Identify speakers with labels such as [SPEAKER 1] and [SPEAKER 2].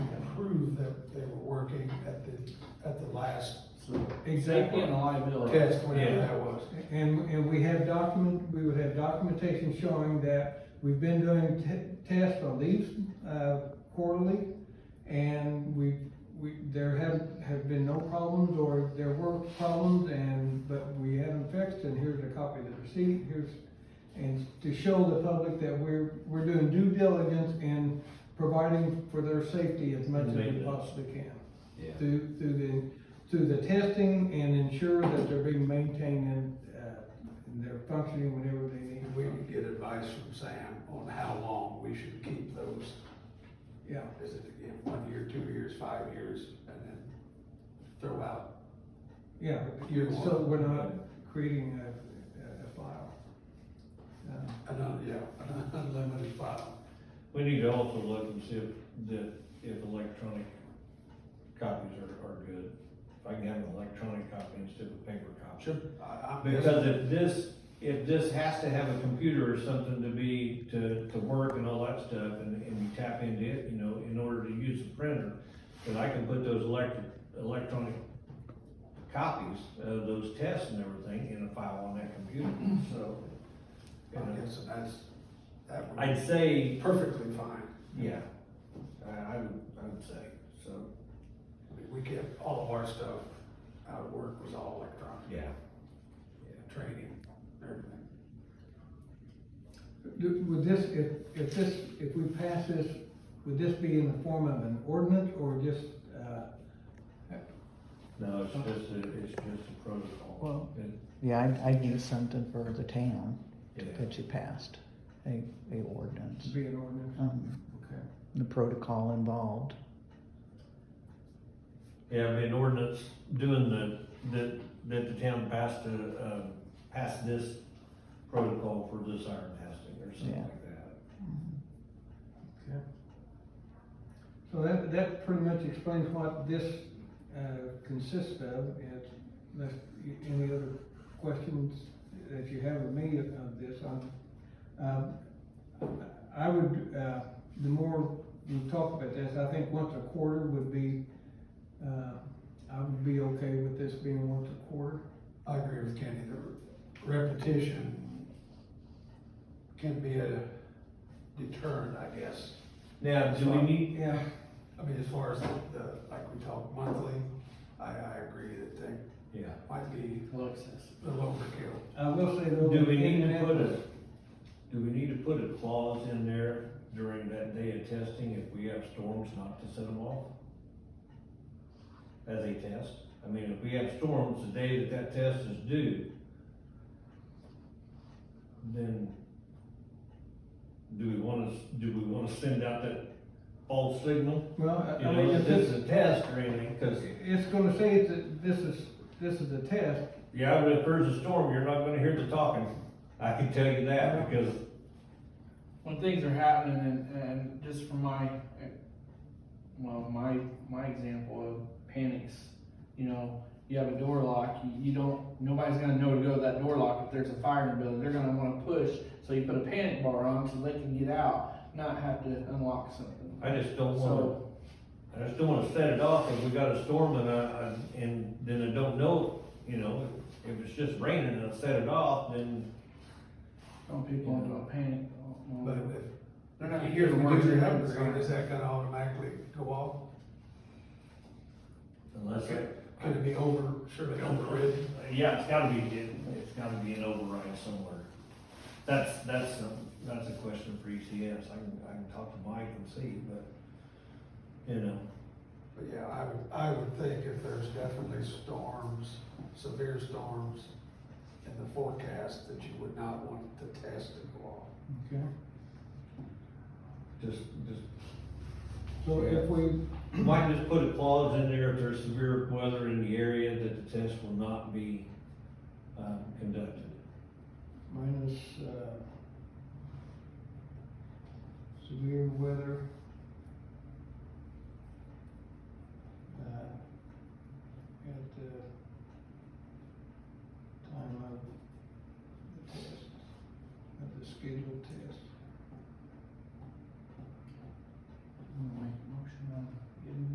[SPEAKER 1] last
[SPEAKER 2] Safety and
[SPEAKER 3] Exactly.
[SPEAKER 2] liability.
[SPEAKER 1] test, whatever
[SPEAKER 3] Yeah.
[SPEAKER 1] that was.
[SPEAKER 3] And, and we have document, we would have documentation showing that we've been doing te- tests on these, uh, quarterly. And we, we, there have, have been no problems or there were problems and, but we haven't fixed and here's a copy of the receipt, here's. And to show the public that we're, we're doing due diligence in providing for their safety as much as we
[SPEAKER 2] Maintenance.
[SPEAKER 3] possibly can
[SPEAKER 2] Yeah.
[SPEAKER 3] through, through the, through the testing and ensure that they're being maintained and, uh, and they're functioning whenever they need.
[SPEAKER 1] We would get advice from Sam on how long we should keep those,
[SPEAKER 3] Yeah,
[SPEAKER 1] is it again, one year, two years, five years, and then throw out.
[SPEAKER 3] yeah,
[SPEAKER 1] Year
[SPEAKER 3] so
[SPEAKER 1] one.
[SPEAKER 3] we're not creating a, a- a file. Uh,
[SPEAKER 1] An, un- yeah, an unlimited file.
[SPEAKER 2] We need to also look and see if, that, if electronic copies are, are good. If I can have an electronic copy instead of a paper copy.
[SPEAKER 1] Sure. I, I'm.
[SPEAKER 2] Because if this, if this has to have a computer or something to be, to, to work and all that stuff, and, and you tap into it, you know, in order to use the printer, then I can put those electric, electronic copies of those tests and everything in a file on that computer, so. you
[SPEAKER 1] I'm
[SPEAKER 2] know,
[SPEAKER 1] guessing that's, that would
[SPEAKER 2] I'd say,
[SPEAKER 1] be perfectly fine.
[SPEAKER 2] yeah, I, I would, I would say, so,
[SPEAKER 1] I mean, We kept all of our stuff out of work was all electronic,
[SPEAKER 2] yeah.
[SPEAKER 1] training, everything.
[SPEAKER 3] do- Would this, if, if this, if we pass this, would this be in the form of an ordinance or just, uh,
[SPEAKER 2] No, it's just a, it's just a protocol.
[SPEAKER 4] Well-
[SPEAKER 2] It-
[SPEAKER 4] Yeah, I'd, I'd need something for the town
[SPEAKER 2] yeah.
[SPEAKER 4] that you passed, a, a ordinance.
[SPEAKER 3] be an ordinance?
[SPEAKER 4] Um,
[SPEAKER 3] Okay.
[SPEAKER 4] the protocol involved.
[SPEAKER 2] Yeah, I mean, ordinance doing the, that, that the town passed to, um, passed this protocol for this iron testing or something
[SPEAKER 4] Yeah.
[SPEAKER 2] like that.
[SPEAKER 3] So that, that pretty much explains what this, uh, consists of, and unless, you- any other questions that you have of me of this, I'm, um, I would, uh, the more we talk about this, I think once a quarter would be, uh, I would be okay with this being once a quarter.
[SPEAKER 1] I agree with Kenny, the repetition can be a deterrent, I guess.
[SPEAKER 2] Now, do we need,
[SPEAKER 3] Yeah,
[SPEAKER 1] I mean, as far as the, the- like we talk monthly, I, I agree that they
[SPEAKER 2] yeah,
[SPEAKER 1] might be a little overkill.
[SPEAKER 3] I will say though.
[SPEAKER 2] do we need to
[SPEAKER 3] internet-
[SPEAKER 2] put a, do we need to put a clause in there during that day of testing if we have storms not to send them off? As a test, I mean, if we have storms the day that that test is due, then do we wanna, do we wanna send out that false signal?
[SPEAKER 3] Well, I-
[SPEAKER 2] You
[SPEAKER 3] I
[SPEAKER 2] know,
[SPEAKER 3] mean,
[SPEAKER 2] if
[SPEAKER 3] if this,
[SPEAKER 2] it's a test or anything, cause,
[SPEAKER 3] it's gonna say it's a this is, this is a test,
[SPEAKER 2] yeah, but if there's a storm, you're not gonna hear the talking, I can tell you that, because
[SPEAKER 5] when things are happening and, and just from my, well, my, my example of panics, you know, you have a door lock, you, you don't, nobody's gonna know to go to that door lock if there's a fire in the building, they're gonna wanna push, so you put a panic bar on so they can get out, not have to unlock something.
[SPEAKER 2] I just don't wanna
[SPEAKER 5] So,
[SPEAKER 2] I just don't wanna set it off if we got a storm and I, I- and then I don't know, you know, if it's just raining and I set it off, then,
[SPEAKER 5] some people into a panic. um,
[SPEAKER 1] But if,
[SPEAKER 5] They're not
[SPEAKER 1] if
[SPEAKER 5] here to
[SPEAKER 1] we
[SPEAKER 5] watch
[SPEAKER 1] do
[SPEAKER 5] your
[SPEAKER 1] have a
[SPEAKER 5] hands.
[SPEAKER 1] green, is that gonna automatically go off?
[SPEAKER 2] unless it.
[SPEAKER 1] Could it be over, surely overridden?
[SPEAKER 2] Yeah, it's gotta be, it- it's gotta be an override somewhere. That's, that's, some- that's a question for ECS, I can, I can talk to Mike and see, but, you know,
[SPEAKER 1] But yeah, I would, I would think if there's definitely storms, severe storms in the forecast, that you would not want to test to go off.
[SPEAKER 3] okay?
[SPEAKER 2] just, just
[SPEAKER 3] So if we,
[SPEAKER 2] Might just put a clause in there if there's severe weather in the area that the test will not be, um, conducted.
[SPEAKER 3] minus, uh, severe weather. Uh, at the time of the test, of the scheduled test.